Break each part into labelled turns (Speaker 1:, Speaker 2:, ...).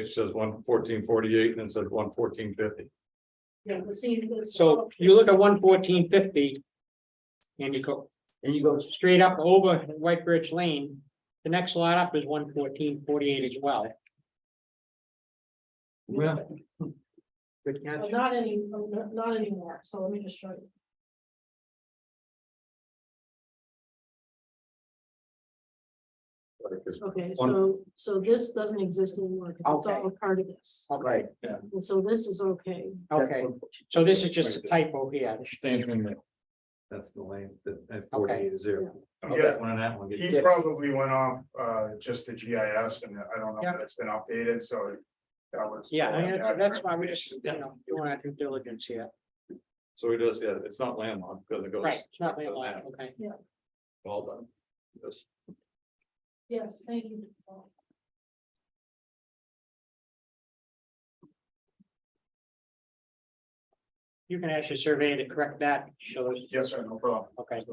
Speaker 1: It says one fourteen forty-eight and it says one fourteen fifty.
Speaker 2: Yeah, the scene was.
Speaker 3: So you look at one fourteen fifty. And you go
Speaker 4: And you go,
Speaker 3: straight up over White Birch Lane. The next lot up is one fourteen forty-eight as well.
Speaker 4: yeah. Good catch.
Speaker 2: Well, Not any, not not anymore, so let me just show you.
Speaker 1: Like it's
Speaker 2: Okay,
Speaker 1: One-
Speaker 2: so, so this doesn't exist anymore, 'cause it's all a part of this,
Speaker 4: Right.
Speaker 2: and so this is okay.
Speaker 3: Okay, so this is just a typo here.
Speaker 1: Same thing there.
Speaker 4: That's the lane, that
Speaker 3: Okay.
Speaker 4: is zero.
Speaker 5: Yeah,
Speaker 4: One on that one. get-
Speaker 5: he probably went off, uh, just the GIS and I don't know
Speaker 3: Yeah.
Speaker 5: if that's been updated, so. That was.
Speaker 3: Yeah, I mean, that- that's why we just, you know, doing our due diligence here.
Speaker 1: So it does, yeah, it's not landlocked because it goes.
Speaker 3: Right, it's not landlocked, okay.
Speaker 1: Well done. Yes.
Speaker 2: Yes, thank you.
Speaker 3: You can ask your surveyor to correct that, shows,
Speaker 5: Yes, sir, no problem.
Speaker 3: okay.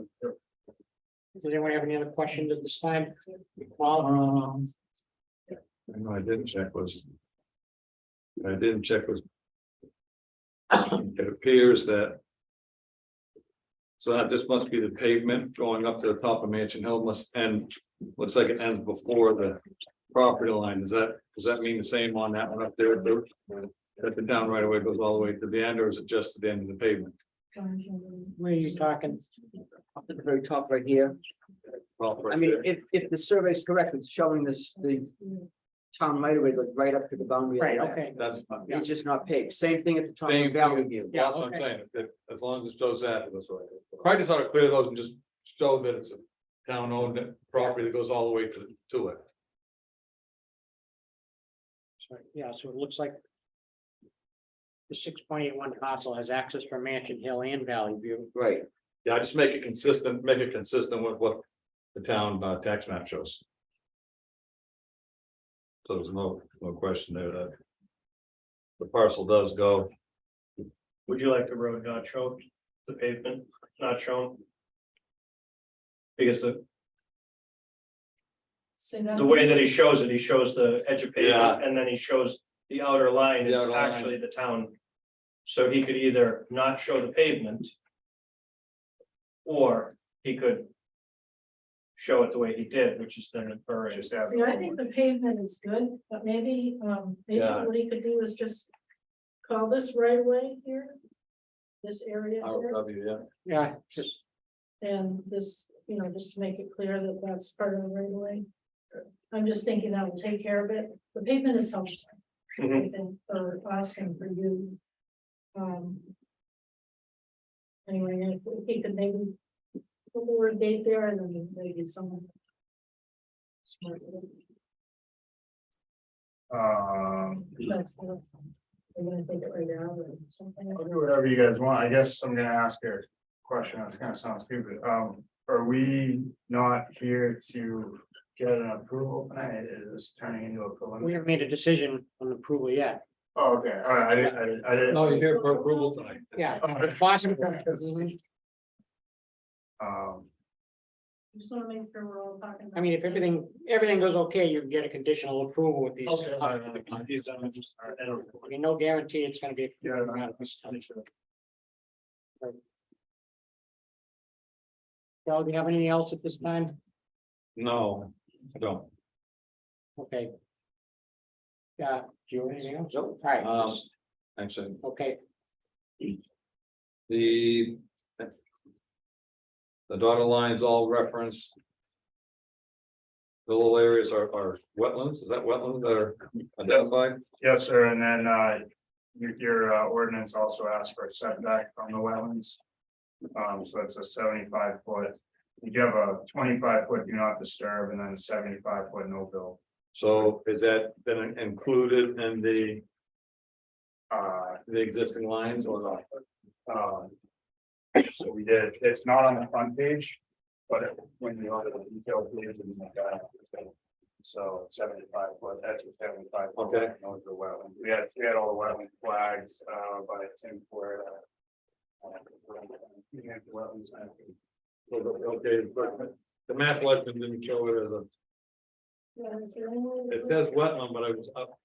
Speaker 3: Does anyone have any other questions at this time? Paul?
Speaker 1: Um. I know I didn't check was. I didn't check was. It appears that. So that this must be the pavement going up to the top of Mansion Hill must end, looks like it ends before the property line. Does that, does that mean the same on that one up there? Lou? That the down right away goes all the way to the end or is it just to the end of the pavement?
Speaker 3: Where are you talking?
Speaker 4: Up at the very top right here.
Speaker 1: Well,
Speaker 4: I
Speaker 1: right
Speaker 4: mean,
Speaker 1: there.
Speaker 4: if, if the survey is correct, it's showing this, the town right away, like right up to the boundary. of
Speaker 3: Right,
Speaker 4: that.
Speaker 3: okay.
Speaker 1: That's.
Speaker 4: It's just not paved. Same thing at the top
Speaker 1: Same
Speaker 4: of
Speaker 1: thing.
Speaker 4: Valley View.
Speaker 3: Yeah,
Speaker 1: That's what I'm
Speaker 3: okay.
Speaker 1: saying, that as long as it shows that, it was right. Probably just ought to clear those and just show that it's a town owned property that goes all the way to, to it.
Speaker 3: Sorry, Yeah, so it looks like. The six point eight one parcel has access from Mansion Hill and Valley View.
Speaker 4: Right.
Speaker 1: Yeah, just make it consistent, make it consistent with what the town uh, tax map shows. So there's no, no question there that. The parcel does go,
Speaker 6: Would you like the road not shown, the pavement not shown? Because the, the way that he shows it, he shows the edge of pavement and then he shows the outer line
Speaker 1: The
Speaker 6: is
Speaker 1: outer line.
Speaker 6: actually the town. So he could either not show the pavement. Or he could. Show it the way he did, which is then inferring.
Speaker 5: Just add.
Speaker 2: See, I think the pavement is good, but maybe, um, maybe
Speaker 1: Yeah.
Speaker 2: what he could do is just call this right away here. This area
Speaker 1: I would
Speaker 2: here,
Speaker 1: love you, yeah,
Speaker 3: Yeah, just
Speaker 2: and this, you know, just to make it clear that that's part of the right away. I'm just thinking that will take care of it, the pavement is helpful. I
Speaker 6: Mhm.
Speaker 2: think for us and for you. Um. Anyway, if we could maybe. Put the word date there and then maybe someone. smart would-
Speaker 5: Um,
Speaker 2: that's the- I'm gonna think it right now or something.
Speaker 5: I'll do whatever you guys want. I guess I'm gonna ask a question. It's gonna sound stupid. Um, are we not here to get an approval tonight? Is this turning into a
Speaker 3: we
Speaker 5: preliminary?
Speaker 3: haven't made a decision on approval yet.
Speaker 5: Oh, Okay, all right, I didn't, I didn't, I didn't.
Speaker 1: no, you're here for approval tonight.
Speaker 3: Yeah.
Speaker 5: All right,
Speaker 3: Boston.
Speaker 5: Um,
Speaker 2: Just wanna make sure we're all talking. about
Speaker 3: I mean, if
Speaker 2: the same-
Speaker 3: everything, everything goes okay, you can get a conditional approval with these.
Speaker 6: Okay.
Speaker 3: I mean, no guarantee it's gonna be.
Speaker 5: Yeah, I-
Speaker 3: Well, do you have anything else at this time?
Speaker 1: No, I don't.
Speaker 3: Okay. Yeah, do you have anything else? All right,
Speaker 1: Um, actually,
Speaker 3: okay,
Speaker 1: the. The dotted lines all reference. The little areas are, are wetlands, is that wetlands that are identified?
Speaker 5: yes, sir, and then, uh, your, your uh, ordinance also asks for a setback from the wetlands. Um, so that's a seventy-five foot, you have a twenty-five foot do not disturb and then a seventy-five foot no build.
Speaker 1: So is that then included in the,
Speaker 5: Uh,
Speaker 1: the existing lines or not?
Speaker 5: um. So we did, it's not on the front page, but it- when you look at the detailed page, it's like that. So seventy-five foot, that's a seventy-five. foot
Speaker 1: Okay.
Speaker 5: wetland, Those are wetland, we had, we had all the wetland flags, uh, by Tim Ford. uh, uh, we had the wetlands, I think.
Speaker 1: Okay, but the map legend didn't show it as a,
Speaker 2: Yeah, is there any way-
Speaker 1: it says wetland, but I was up,